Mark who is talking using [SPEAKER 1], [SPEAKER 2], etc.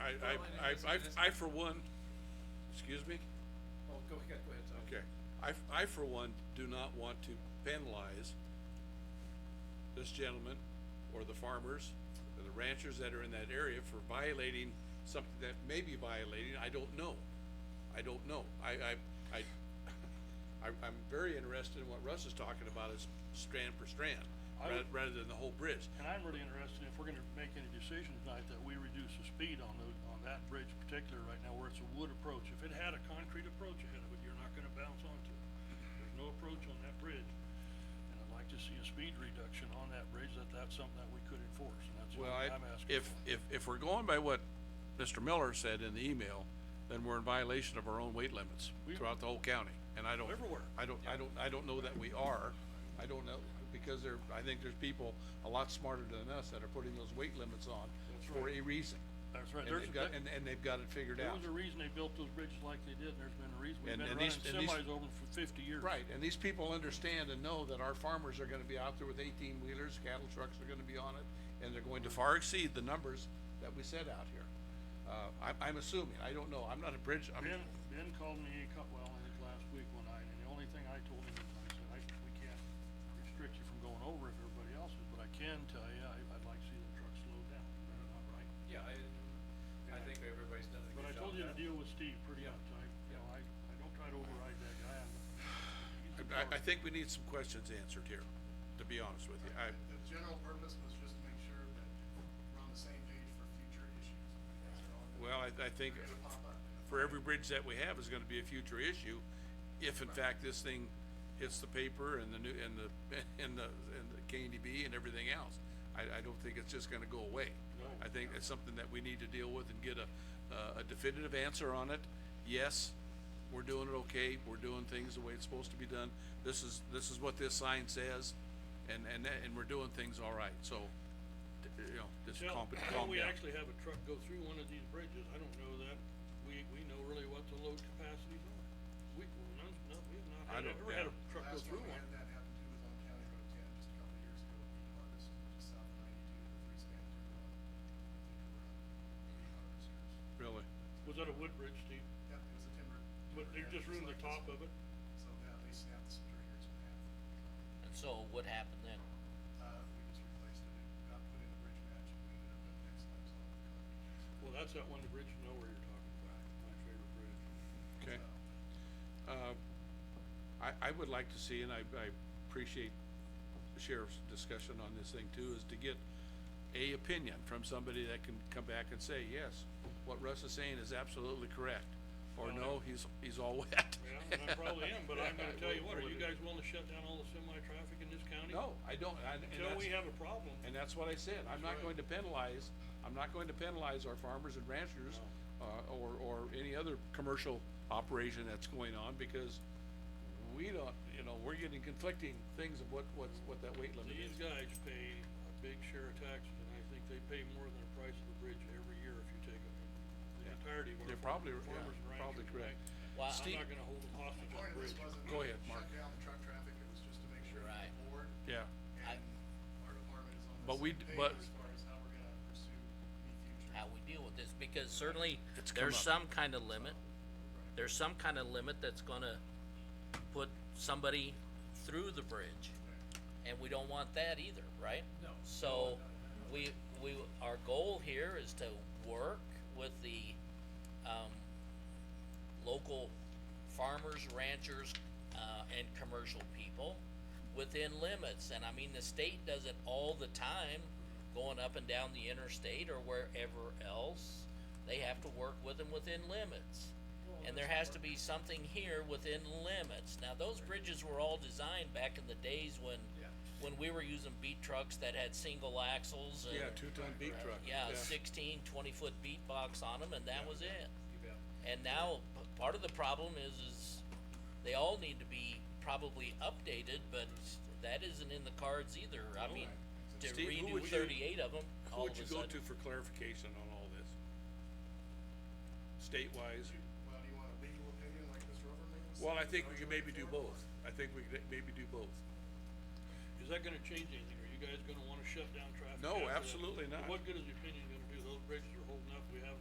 [SPEAKER 1] I, I, I, I, I for one, excuse me?
[SPEAKER 2] Oh, go ahead, go ahead, Tom.
[SPEAKER 1] Okay, I, f- I for one do not want to penalize this gentleman or the farmers or the ranchers that are in that area for violating something that may be violating, I don't know. I don't know, I, I, I, I, I'm very interested in what Russ is talking about is strand per strand,
[SPEAKER 3] I
[SPEAKER 1] rather,
[SPEAKER 3] would-
[SPEAKER 1] rather than the whole bridge.
[SPEAKER 3] And I'm really interested, if we're gonna make any decision tonight, that we reduce the speed on those, on that bridge in particular right now, where it's a wood approach. If it had a concrete approach ahead of it, you're not gonna bounce onto it. There's no approach on that bridge. And I'd like to see a speed reduction on that bridge, that that's something that we could enforce, and that's what
[SPEAKER 1] Well, I,
[SPEAKER 3] I'm asking
[SPEAKER 1] if, if,
[SPEAKER 3] for.
[SPEAKER 1] if we're going by what Mr. Miller said in the email, then we're in violation of our own weight limits
[SPEAKER 3] We-
[SPEAKER 1] throughout the whole county, and I don't.
[SPEAKER 3] Everywhere.
[SPEAKER 1] I don't, I don't, I don't know that we are, I don't know, because there, I think there's people a lot smarter than us that are putting those weight limits on
[SPEAKER 3] That's
[SPEAKER 1] for a
[SPEAKER 3] right.
[SPEAKER 1] reason.
[SPEAKER 3] That's
[SPEAKER 1] And
[SPEAKER 3] right. There's-
[SPEAKER 1] they've got,
[SPEAKER 3] that-
[SPEAKER 1] and, and they've got it figured
[SPEAKER 3] There
[SPEAKER 1] out.
[SPEAKER 3] was a reason they built those bridges like they did, and there's been a reason, we've
[SPEAKER 1] And-
[SPEAKER 3] been
[SPEAKER 1] and
[SPEAKER 3] running
[SPEAKER 1] these- and these-
[SPEAKER 3] semis over them for fifty years.
[SPEAKER 1] Right, and these people understand and know that our farmers are gonna be out there with eighteen wheelers, cattle trucks are gonna be on it, and they're going to far exceed the numbers that we set out here. Uh, I, I'm assuming, I don't know, I'm not a bridge, I'm,
[SPEAKER 3] Ben, Ben called me a couple, well, I think last week one night, and the only thing I told him is, I said, I, we can't restrict you from going over if everybody else is, but I can tell you, I, I'd like to see the truck slow down, That's not right.
[SPEAKER 2] Yeah, I, I think everybody's done a
[SPEAKER 3] But I
[SPEAKER 2] good job.
[SPEAKER 3] told you to
[SPEAKER 2] with that.
[SPEAKER 3] deal with Steve pretty
[SPEAKER 2] Yeah.
[SPEAKER 3] much, I, you know, I, I don't try to override that guy, I'm. he's
[SPEAKER 1] I, I
[SPEAKER 3] a authority.
[SPEAKER 1] think we need some questions answered here, to be honest with you, I,
[SPEAKER 4] The the general purpose was just to make sure that we're on the same page for future issues. That's all.
[SPEAKER 1] well, I, I think
[SPEAKER 4] They're gonna pop up.
[SPEAKER 1] for every bridge that we have is gonna be a future issue, if in fact this thing hits the paper and the new, and the, and the, and the K and D B and everything else. I, I don't think it's just gonna go away.
[SPEAKER 3] No.
[SPEAKER 1] I think it's something that we need to deal with and get a, uh, a definitive answer on it. Yes, we're doing it okay, we're doing things the way it's supposed to be done, this is, this is what this sign says, and, and, that- and we're doing things all right, so, d- you know, just
[SPEAKER 3] Till-
[SPEAKER 1] calm,
[SPEAKER 3] till
[SPEAKER 1] calm
[SPEAKER 3] we
[SPEAKER 1] down.
[SPEAKER 3] actually have a truck go through one of these bridges, I don't know that, we, we know really what the load capacities are. We, none, no, we have not
[SPEAKER 1] I
[SPEAKER 3] had,
[SPEAKER 1] don't-
[SPEAKER 3] ever had a
[SPEAKER 1] yeah.
[SPEAKER 3] truck go
[SPEAKER 4] Last
[SPEAKER 3] through
[SPEAKER 4] time we
[SPEAKER 3] one.
[SPEAKER 4] had that happen too was on County Road ten, just a couple of years ago, we harvested just south of ninety-two, the three span through. uh, I think around eighty harvesters.
[SPEAKER 1] Really,
[SPEAKER 3] Was that a wood bridge, Steve?
[SPEAKER 4] Yep, it was a timber.
[SPEAKER 3] But they
[SPEAKER 4] timber
[SPEAKER 3] just
[SPEAKER 4] average,
[SPEAKER 3] ruined the
[SPEAKER 4] like
[SPEAKER 3] top
[SPEAKER 4] this.
[SPEAKER 3] of it?
[SPEAKER 4] So, yeah, they snapped the stringers in half.
[SPEAKER 5] And so what happened then?
[SPEAKER 4] Uh, we just replaced it, and got put in a bridge match, and we ended up at next time's on the cut.
[SPEAKER 3] Well, that's that one, the bridge you know where you're talking about, my favorite bridge.
[SPEAKER 1] okay.
[SPEAKER 4] So,
[SPEAKER 1] Uh, I, I would like to see, and I, I appreciate the sheriff's discussion on this thing too, is to get a opinion from somebody that can come back and say, yes, what Russ is saying is absolutely correct, or
[SPEAKER 3] Well,
[SPEAKER 1] no, he's, he's all wet.
[SPEAKER 3] Yeah, and I probably am, but I'm gonna tell you what, are you guys willing to shut down all the semi-traffic in this county?
[SPEAKER 1] No, I don't, I- and
[SPEAKER 3] Until we
[SPEAKER 1] that's-
[SPEAKER 3] have a problem,
[SPEAKER 1] And that's what I said, I'm not
[SPEAKER 3] That's
[SPEAKER 1] going
[SPEAKER 3] right.
[SPEAKER 1] to penalize, I'm not going to penalize our farmers and ranchers, uh, or, or any other commercial operation that's going on, because we don't, you know, we're getting conflicting things of what, what's, what that weight limit
[SPEAKER 3] these
[SPEAKER 1] is.
[SPEAKER 3] guys pay a big share of taxes, and I think they pay more than the price of the bridge every year if you take it. The
[SPEAKER 1] Yeah.
[SPEAKER 3] entirety of
[SPEAKER 1] You're
[SPEAKER 3] our
[SPEAKER 1] probably, yeah,
[SPEAKER 3] farmers and ranchers, right?
[SPEAKER 1] probably correct.
[SPEAKER 5] Well,
[SPEAKER 3] I'm
[SPEAKER 1] Steve-
[SPEAKER 3] not gonna hold them hostage on
[SPEAKER 4] The point
[SPEAKER 3] the
[SPEAKER 4] of this
[SPEAKER 3] bridge.
[SPEAKER 4] wasn't
[SPEAKER 1] Go
[SPEAKER 4] to
[SPEAKER 1] ahead, Mark.
[SPEAKER 4] Shut down the truck traffic, it was just to make sure that
[SPEAKER 5] Right.
[SPEAKER 4] the board
[SPEAKER 1] Yeah,
[SPEAKER 5] I-
[SPEAKER 4] and our department is on the
[SPEAKER 1] But we
[SPEAKER 4] same
[SPEAKER 1] d-
[SPEAKER 4] page
[SPEAKER 1] but-
[SPEAKER 4] as far as how we're gonna pursue the future.
[SPEAKER 5] How we deal with this, because certainly
[SPEAKER 1] It's come
[SPEAKER 5] there's
[SPEAKER 1] up.
[SPEAKER 5] some kind of limit. There's some kind of limit that's gonna put somebody through the bridge. And we don't want that either, right? No. So, we, we, our goal here is to work with the, um, local farmers, ranchers, uh, and commercial people within limits, and I mean, the state does it all the time, going up and down the interstate or wherever else, they have to work with them within limits. And there has to be something here within limits, now, those bridges were all designed back in the days when, when we were using beat trucks that had single axles and
[SPEAKER 1] yeah, two-ton beat truck.
[SPEAKER 5] yeah, sixteen, twenty foot beat box on them, and that was it. And now, p- part of the problem is, is they all need to be probably updated, but that isn't in the cards either, I mean, to
[SPEAKER 1] Steve, who
[SPEAKER 5] redo
[SPEAKER 1] would you-
[SPEAKER 5] thirty-eight of them,
[SPEAKER 1] Who
[SPEAKER 5] all of
[SPEAKER 1] would you
[SPEAKER 5] a
[SPEAKER 1] go
[SPEAKER 5] sudden.
[SPEAKER 1] to for clarification on all this? State-wise,
[SPEAKER 4] Well, do you want a legal opinion like Mr. Overman? was
[SPEAKER 1] well, I
[SPEAKER 4] saying?
[SPEAKER 1] think
[SPEAKER 4] Or
[SPEAKER 1] we
[SPEAKER 4] you
[SPEAKER 1] can
[SPEAKER 4] wanna
[SPEAKER 1] maybe do both,
[SPEAKER 4] forward?
[SPEAKER 1] I think we could maybe do both.
[SPEAKER 3] Is that gonna change anything? Are you guys gonna wanna shut down traffic?
[SPEAKER 1] No,
[SPEAKER 3] after that?
[SPEAKER 1] absolutely not.
[SPEAKER 3] What good is the opinion gonna do? Those bridges are holding up. We have